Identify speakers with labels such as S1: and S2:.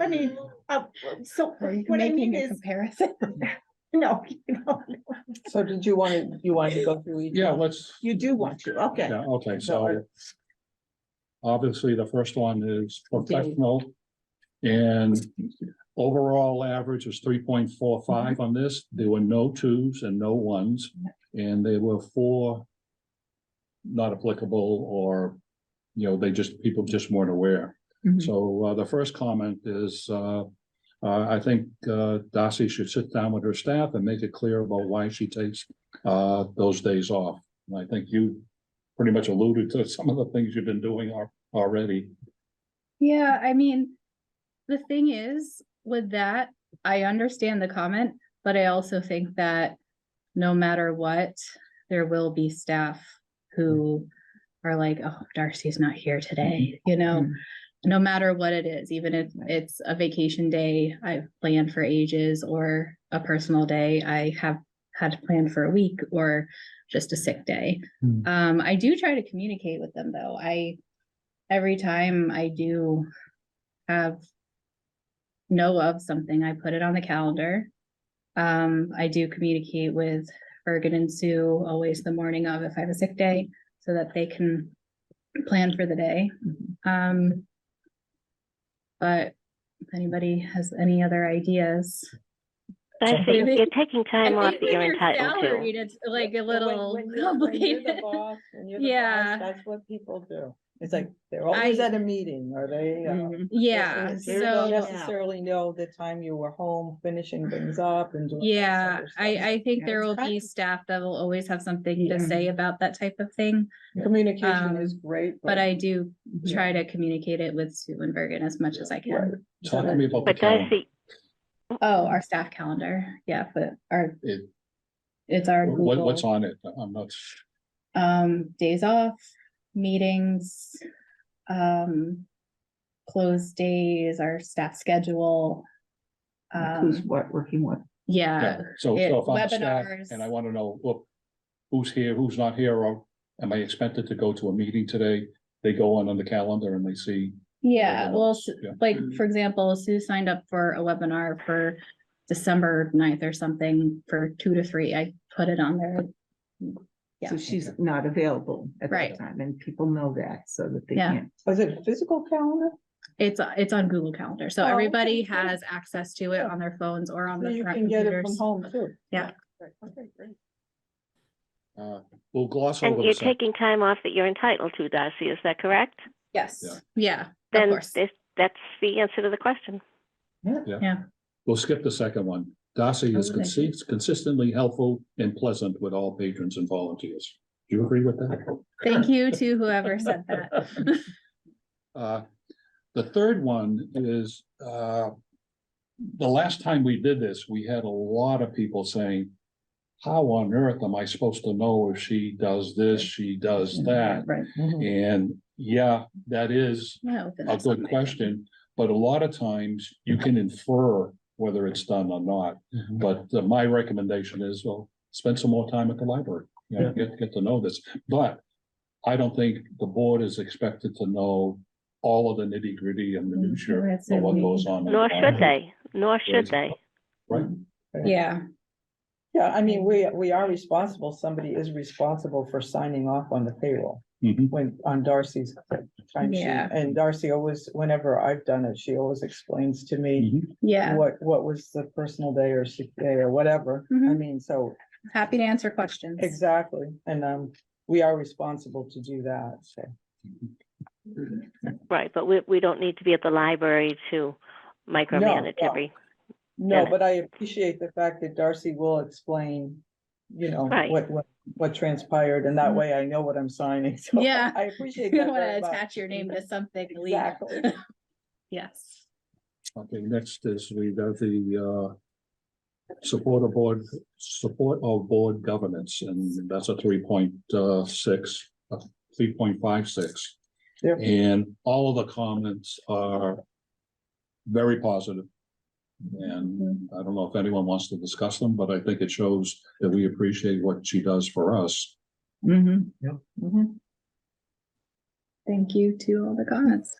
S1: I mean, uh, so
S2: Are you
S1: what I mean
S2: making a
S1: is,
S2: comparison?
S1: no, you know,
S3: So did you want to, you wanted to go through each?
S4: Yeah, let's,
S1: you do want to, okay.
S4: yeah, okay,
S3: I-
S4: so. Obviously, the first one is
S3: Okay.
S4: professional. And overall average is three point four
S1: Mm-hmm.
S4: five on this. There were no twos and no ones, and there were four. Not applicable or, you know, they just, people just weren't aware.
S2: Mhm.
S4: So uh, the first comment is, uh, uh, I think uh, Darcy should sit down with her staff and make it clear about why she takes uh, those days off. And I think you pretty much alluded to some of the things you've been doing al- already.
S2: Yeah, I mean, the thing is with that, I understand the comment, but I also think that no matter what, there will be staff who are like, oh, Darcy's not here today, you know?
S3: Mhm.
S2: No matter what it is, even if it's a vacation day I've planned for ages or a personal day I have had planned for a week or just a sick day.
S4: Mm.
S2: Um, I do try to communicate with them though. I, every time I do have know of something, I put it on the calendar. Um, I do communicate with Bergen and Sue always the morning of if I have a sick day, so that they can plan for the day.
S3: Mm-hmm.
S2: Um, but if anybody has any other ideas?
S5: I see,
S2: Maybe-
S5: you're taking time off that you're entitled to.
S2: salaried, It's like a
S3: But when-
S2: little
S3: when you're- when you're the
S2: complicated.
S3: boss and you're the boss,
S2: Yeah.
S3: That's what people do. It's like, they're always
S2: I-
S3: at a meeting or they.
S4: Mm-hmm.
S3: uh,
S5: Mhm.
S2: Yeah,
S3: they don't
S2: so,
S3: Necessarily know the time you were home finishing things up and. doing all this
S2: yeah,
S3: other
S2: I,
S3: stuff.
S2: I think
S3: Yeah,
S2: there
S3: it's
S2: will be
S3: practice.
S2: staff that will always have something to
S3: Yeah.
S2: say about that type of thing.
S3: Communication
S2: um,
S3: is great.
S2: But I do
S3: Yeah.
S2: try to communicate it with Sue and Bergen as much as I
S3: Right.
S2: can.
S4: Talk to me about the
S5: But
S4: calendar.
S5: Darcy,
S2: Oh, our staff calendar, yeah, but our,
S4: It-
S2: it's our
S4: What, what's
S2: Google,
S4: on it? I'm not,
S2: um, days off, meetings, um, closed days, our staff schedule.
S3: Who's
S2: Um,
S3: what, working what?
S2: yeah,
S4: yeah, so, so
S2: Uh, it-
S4: if I'm a staff and I
S2: webinars.
S4: want to know, look, who's here, who's not here, or am I expected to go to a meeting today? They go on on the calendar and they see, Uh,
S2: yeah, well, s-
S4: yeah. Mm-hmm.
S2: like, for example, Sue signed up for a webinar for December 9th or something for two to three. I put it on there. Yeah.
S6: So she's not available at
S2: Right.
S6: that time and people know that so that they
S2: Yeah.
S6: can't.
S3: Is it a physical calendar?
S2: It's, it's on Google Calendar, so
S3: Oh, okay,
S2: everybody
S3: great.
S2: has access to it on their phones or on
S3: So
S2: the
S3: you
S2: front
S3: can get it from
S2: computers.
S3: home too.
S2: Yeah.
S3: Right, Okay, great.
S4: uh, we'll gloss over.
S5: and
S4: the
S5: you're
S4: sec-
S5: taking time off that you're entitled to, Darcy, is that correct?
S2: Yes,
S4: Yeah.
S2: yeah, of
S5: Then
S2: course.
S5: this- that's the answer to the question.
S4: We'll skip the second one. Darcy is
S2: Okay.
S4: consi- consistently helpful and pleasant with all patrons and volunteers. Do you agree with that?
S2: Thank you to whoever said that.
S4: Uh, The third one is, uh, the last time we did this, we had a lot of people saying, how on earth am I supposed to know if she does this, she does that?
S2: Right.
S4: Mm-hmm.
S3: Mhm.
S4: And yeah, that is
S2: I'll open
S4: a
S2: this up.
S4: good question, but a lot of times you can infer whether it's done or not. But uh, my recommendation is, well, spend some more time at the library, you know, get, get to know this, but. I don't think the board is expected to know all of the nitty gritty and the
S2: Mhm,
S4: minutia of
S2: that's it.
S4: what goes on. in the
S5: Mm-hmm. Nor should
S4: library.
S5: they, nor should they.
S4: Right,
S2: Yeah,
S3: Yeah, I mean, we, we are responsible, somebody is responsible for signing off on the payroll
S4: Mhm.
S3: when, on Darcy's time sheet.
S2: Yeah.
S3: And Darcy always, whenever I've done it, she always explains to me
S4: Mhm.
S2: yeah.
S3: what, what was the personal day or sick day or whatever. I
S2: Mhm.
S3: mean, so,
S2: Happy to answer questions.
S3: exactly, and, um, we are responsible to do that, so.
S5: Right, but we, we don't need to be at the library to micromanage
S3: no.
S5: every,
S3: No,
S5: Yeah.
S3: but I appreciate the fact that Darcy will explain, you know,
S5: Right.
S3: what, what, what transpired, and that
S2: Mhm.
S3: way I know what I'm signing, so.
S2: Yeah.
S3: I appreciate
S2: You
S3: that
S2: don't want to
S3: very much.
S2: attach your name to something legal.
S3: Exactly.
S2: Yes.
S4: Okay, next is we got the, uh. Support of board, support of board governance, and that's a three point, uh, six, a three point five six.
S3: They're-
S4: And all of the comments are very positive. And I don't know if anyone wants to discuss them, but I think it shows that we appreciate what she does for us.
S3: Mhm.
S2: Thank you to all the comments.